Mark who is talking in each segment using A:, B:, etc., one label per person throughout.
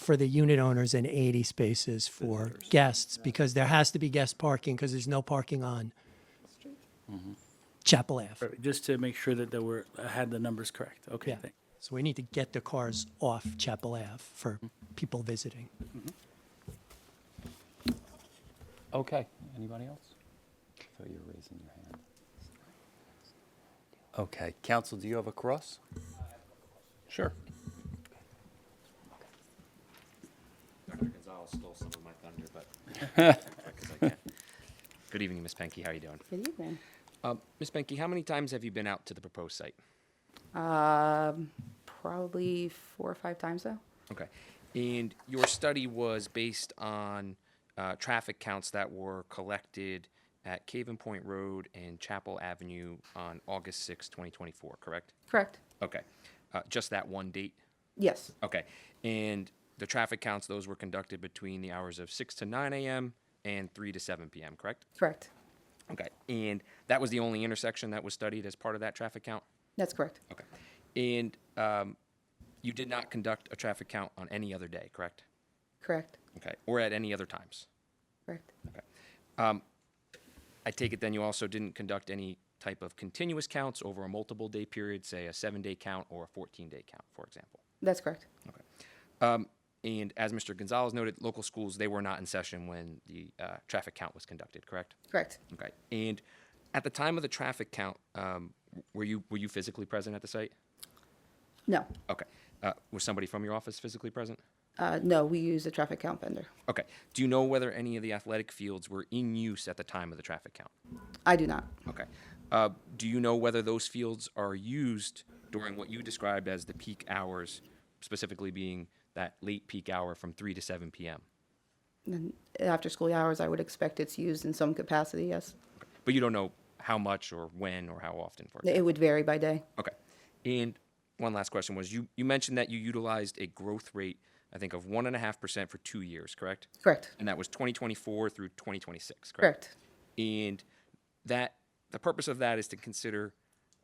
A: for the unit owners and 80 spaces for guests because there has to be guest parking because there's no parking on
B: Mm-hmm.
A: Chapel Ave.
B: Perfect. Just to make sure that there were, I had the numbers correct. Okay,
A: Yeah.
B: thank-
A: So we need to get the cars off Chapel Ave for
B: Mm-hmm.
A: people visiting.
C: Okay, anybody else? So you're raising your hand. Okay, council, do you have a cross? Sure.
D: Dr. Gonzalez stole some of my thunder, but because I can. Good evening, Ms. Penke. How are you doing?
E: Good evening.
D: Um, Ms. Penke, how many times have you been out to the proposed site?
E: Um, probably four or five times though.
D: Okay. And your study was based on uh, traffic counts that were collected at Caven Point Road and Chapel Avenue on August 6, 2024, correct?
E: Correct?
D: Okay. Uh, just that one date?
E: Yes.
D: Okay. And the traffic counts, those were conducted between the hours of 6 to 9 a.m. and 3 to 7 p.m., correct?
E: Correct.
D: Okay, and that was the only intersection that was studied as part of that traffic count?
E: That's correct.
D: Okay. And um, you did not conduct a traffic count on any other day, correct?
E: Correct.
D: Okay, or at any other times?
E: Correct.
D: Okay. Um, I take it then you also didn't conduct any type of continuous counts over a multiple day period, say a seven day count or a 14 day count, for example?
E: That's correct.
D: Okay. Um, And as Mr. Gonzalez noted, local schools, they were not in session when the uh, traffic count was conducted, correct?
E: Correct.
D: Okay. And at the time of the traffic count, um, w- were you were you physically present at the site?
E: No.
D: Okay. Uh, was somebody from your office physically present?
E: Uh, no, we use a traffic count vendor.
D: Okay. Do you know whether any of the athletic fields were in use at the time of the traffic count?
E: I do not.
D: Okay. Uh, do you know whether those fields are used during what you described as the peak hours, specifically being that late peak hour from 3 to 7 p.m.?
E: And after school hours, I would expect it's used in some capacity. Yes.
D: But you don't know how much or when or how often, for example.
E: It would vary by day.
D: Okay. And one last question was you, you mentioned that you utilized a growth rate, I think, of 1.5% for two years, correct?
E: Correct.
D: And that was 2024 through 2026, correct?
E: Correct.
D: And that the purpose of that is to consider,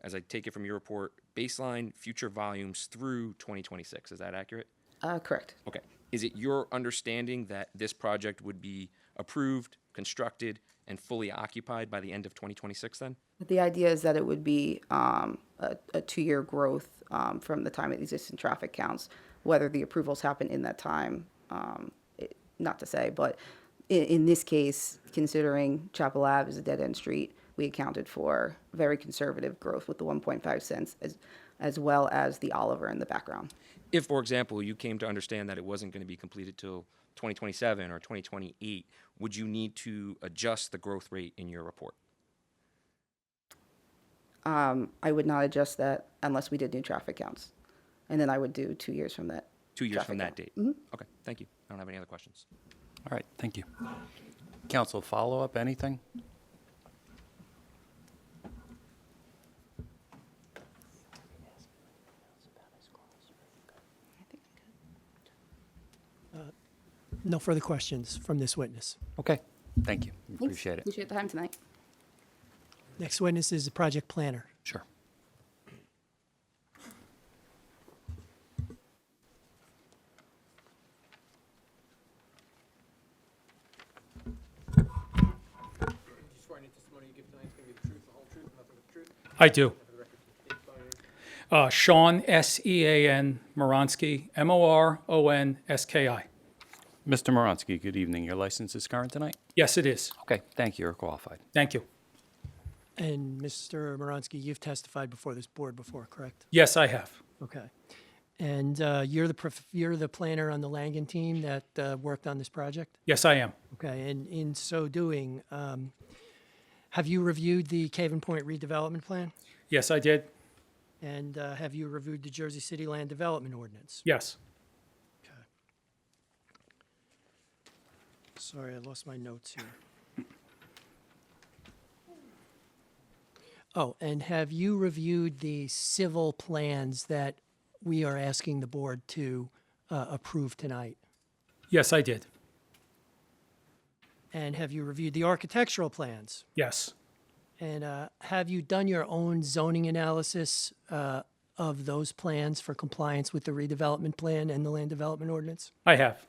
D: as I take it from your report, baseline future volumes through 2026. Is that accurate?
E: Uh, correct.
D: Okay. Is it your understanding that this project would be approved, constructed, and fully occupied by the end of 2026 then?
E: The idea is that it would be um, a, a two-year growth um, from the time of existing traffic counts, whether the approvals happen in that time, um, it- not to say, but in, in this case, considering Chapel Ave is a dead-end street, we accounted for very conservative growth with the 1.5 cents as, as well as the Oliver in the background.
D: if, for example, you came to understand that it wasn't going to be completed till 2027 or 2028, would you need to adjust the growth rate in your report?
E: Um, I would not adjust that unless we did new traffic counts. And then I would do two years from that.
D: Two years from that
E: traffic
D: date?
E: count. Mhm.
D: Okay, thank you. I don't have any other questions.
C: All right, thank you. Council, follow-up, anything?
A: No further questions from this witness.
C: Okay, thank you,
E: Thanks.
C: appreciate it.
E: Appreciate the time tonight.
A: Next witness is the project planner.
C: Sure.
F: I do. Uh, Sean, S E A N Moronsky, M O R O N S K I.
C: Mr. Moronsky, good evening. Your license is current tonight?
F: Yes, it is.
C: Okay, thank you, you're qualified.
F: Thank you.
A: And Mr. Moronsky, you've testified before this board before, correct?
F: Yes, I have.
A: Okay. And uh, you're the, prof- you're the planner on the Langen team that uh, worked on this project?
F: Yes, I am.
A: Okay, and in so doing, um, have you reviewed the Caven Point redevelopment plan?
F: Yes, I did.
A: And uh, have you reviewed the Jersey City Land Development Ordinance?
F: Yes.
A: Sorry, I lost my notes here. Oh, and have you reviewed the civil plans that we are asking the board to uh, approve tonight?
F: Yes, I did.
A: And have you reviewed the architectural plans?
F: Yes.
A: And uh, have you done your own zoning analysis uh, of those plans for compliance with the redevelopment plan and the land development ordinance?
F: I have.